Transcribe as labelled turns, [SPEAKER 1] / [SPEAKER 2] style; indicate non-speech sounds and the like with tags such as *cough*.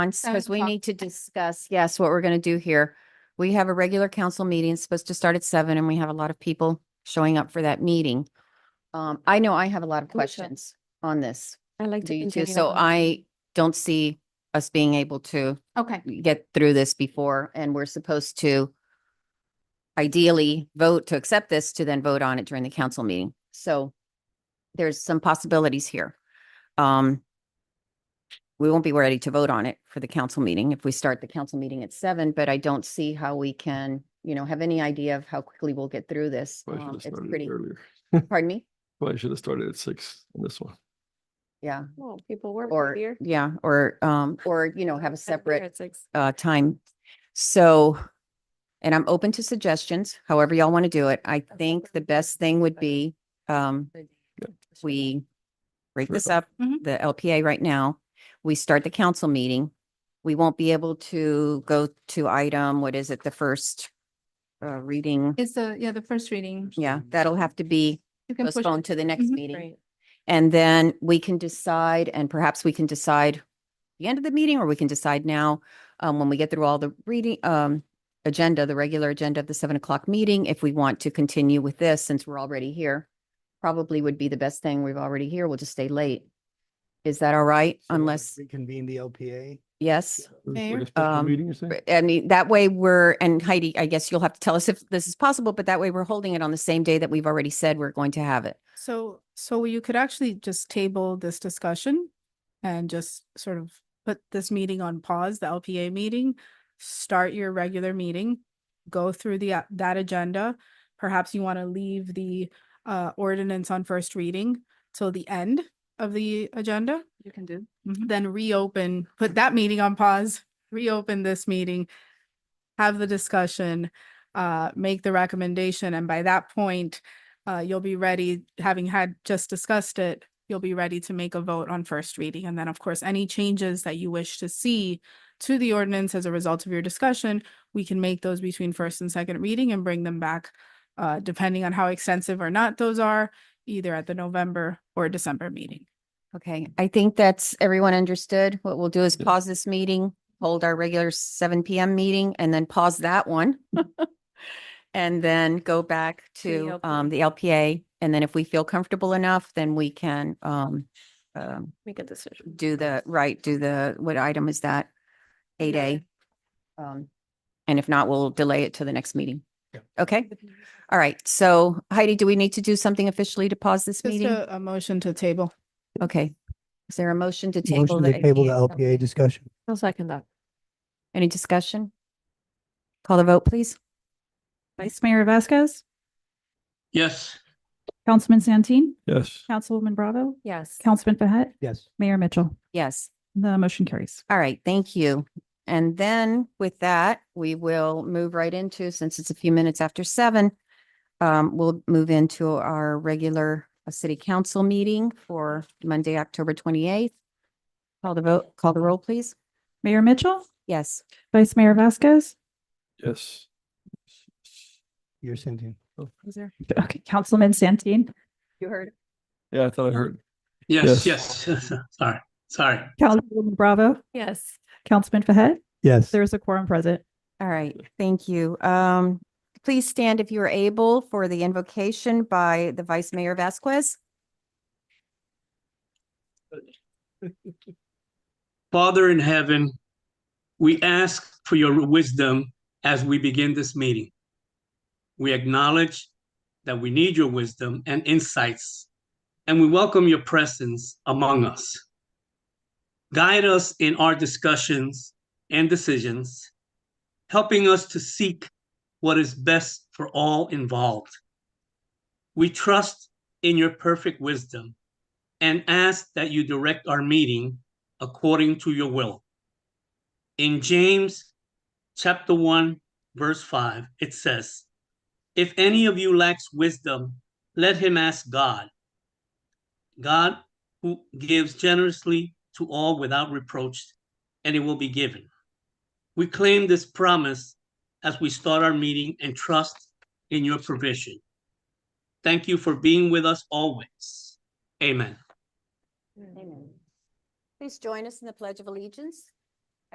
[SPEAKER 1] Seven
[SPEAKER 2] because we
[SPEAKER 1] o'clock.
[SPEAKER 2] need to discuss, yes, what we're going to do here. We have a regular council meeting, it's supposed to start at seven, and we have a lot of people showing up for that meeting. Um, I know I have a lot of
[SPEAKER 1] Me too.
[SPEAKER 2] questions on this,
[SPEAKER 1] I like
[SPEAKER 2] do
[SPEAKER 1] to
[SPEAKER 2] you too?
[SPEAKER 1] continue.
[SPEAKER 2] So um,
[SPEAKER 1] on.
[SPEAKER 2] I don't see us being able to
[SPEAKER 1] Okay,
[SPEAKER 2] get through this before, and we're supposed to ideally vote to accept this to then vote on it during the council meeting. So there's some possibilities here. Um, we won't be ready to vote on it for the council meeting if we start the council meeting at seven, but I don't see how we can, you know, have any idea of how quickly we'll get through this.
[SPEAKER 3] Probably
[SPEAKER 2] Um,
[SPEAKER 3] should have
[SPEAKER 2] It's
[SPEAKER 3] started
[SPEAKER 2] pretty,
[SPEAKER 3] earlier.
[SPEAKER 2] pardon me?
[SPEAKER 3] Probably should have started at six on this one.
[SPEAKER 2] Yeah,
[SPEAKER 1] well, people work
[SPEAKER 2] or,
[SPEAKER 1] here.
[SPEAKER 2] yeah, or, um, or, you know, have a
[SPEAKER 1] Have a beer
[SPEAKER 2] separate
[SPEAKER 1] at six.
[SPEAKER 2] uh, time. So, and I'm open to suggestions, however y'all want to do it. I think the best thing would be, um, we break this up,
[SPEAKER 1] Mhm.
[SPEAKER 2] the LPA right now. We start the council meeting. We won't be able to go to item, what is it, the first uh, reading?
[SPEAKER 1] It's the, yeah, the first reading.
[SPEAKER 2] Yeah, that'll have to be
[SPEAKER 1] You can push it.
[SPEAKER 2] postponed to the next
[SPEAKER 1] Mhm.
[SPEAKER 2] meeting. And then we can decide, and perhaps we can decide the end of the meeting, or we can decide now, um, when we get through all the reading, um, agenda, the regular agenda of the seven o'clock meeting, if we want to continue with this, since we're already here. Probably would be the best thing. We've already here. We'll just stay late. Is that all right?
[SPEAKER 4] So we can
[SPEAKER 2] Unless,
[SPEAKER 4] Reconvene the LPA.
[SPEAKER 2] yes?
[SPEAKER 3] Like
[SPEAKER 1] Mayor?
[SPEAKER 3] a special
[SPEAKER 2] Um,
[SPEAKER 3] Meeting, you're saying?
[SPEAKER 2] Right, I mean, that way we're, and Heidi, I guess you'll have to tell us if this is possible, but that way we're holding it on the same day that we've already said we're going to have it.
[SPEAKER 5] So, so you could actually just table this discussion and just sort of put this meeting on pause, the LPA meeting, start your regular meeting, go through the, a- that agenda. Perhaps you want to leave the, uh, ordinance on first reading till the end of the agenda, Mm-hmm.
[SPEAKER 1] You can do.
[SPEAKER 5] then reopen, put that meeting on pause, reopen this meeting, have the discussion, uh, make the recommendation, and by that point, uh, you'll be ready, having had just discussed it, you'll be ready to make a vote on first reading. And then, of course, any changes that you wish to see to the ordinance as a result of your discussion, we can make those between first and second reading and bring them back, uh, depending on how extensive or not those are, either at the November or December meeting.
[SPEAKER 2] Okay, I think that's, everyone understood. What we'll do is
[SPEAKER 3] Yeah.
[SPEAKER 2] pause this meeting, hold our regular seven PM meeting and then pause that one. *laughs* And then go back
[SPEAKER 1] To the
[SPEAKER 2] to um the LPA. And then if we feel comfortable enough, then we can um um
[SPEAKER 1] Make a decision.
[SPEAKER 2] do the, right, do the, what item is that? Eight A. Um, and if not, we'll delay it to the next meeting.
[SPEAKER 4] Yep.
[SPEAKER 2] Okay, all right. So Heidi, do we need to do something officially to pause this
[SPEAKER 5] Just
[SPEAKER 2] meeting?
[SPEAKER 5] a, a motion to table.
[SPEAKER 2] Okay. Is there a motion to table?
[SPEAKER 4] Motion to table the
[SPEAKER 2] LPA?
[SPEAKER 4] LPA discussion.
[SPEAKER 1] I'll second that.
[SPEAKER 2] Any discussion? Call the vote, please.
[SPEAKER 6] Vice Mayor Vasquez,
[SPEAKER 7] Yes,
[SPEAKER 6] Councilman Santeen,
[SPEAKER 3] Yes.
[SPEAKER 6] Councilwoman Bravo,
[SPEAKER 1] Yes.
[SPEAKER 6] Councilman Behet,
[SPEAKER 4] Yes.
[SPEAKER 6] Mayor Mitchell.
[SPEAKER 2] Yes.
[SPEAKER 6] The motion carries.
[SPEAKER 2] All right, thank you. And then with that, we will move right into, since it's a few minutes after seven, um, we'll move into our regular uh, city council meeting for Monday, October twenty-eighth. Call the vote, call the roll, please.
[SPEAKER 6] Mayor Mitchell,
[SPEAKER 2] Yes.
[SPEAKER 6] Vice Mayor Vasquez,
[SPEAKER 3] Yes.
[SPEAKER 4] You're sending.
[SPEAKER 6] okay, Councilman Santeen,
[SPEAKER 2] You heard.
[SPEAKER 3] Yeah, I thought I heard.
[SPEAKER 7] yes, yes. *laughs* Sorry, sorry.
[SPEAKER 6] Councilwoman Bravo,
[SPEAKER 1] Yes.
[SPEAKER 6] Councilman Behet.
[SPEAKER 4] Yes.
[SPEAKER 6] There is a quorum present.
[SPEAKER 2] All right, thank you. Um, please stand if you are able for the invocation by the Vice Mayor Vasquez.
[SPEAKER 7] Father in heaven, we ask for your wisdom as we begin this meeting. We acknowledge that we need your wisdom and insights, and we welcome your presence among us. Guide us in our discussions and decisions, helping us to seek what is best for all involved. We trust in your perfect wisdom and ask that you direct our meeting according to your will. In James chapter 1, verse 5, it says, If any of you lacks wisdom, let him ask God. God who gives generously to all without reproach, and it will be given. We claim this promise as we start our meeting and trust in your provision. Thank you for being with us always. Amen.
[SPEAKER 2] Please join us in the Pledge of Allegiance.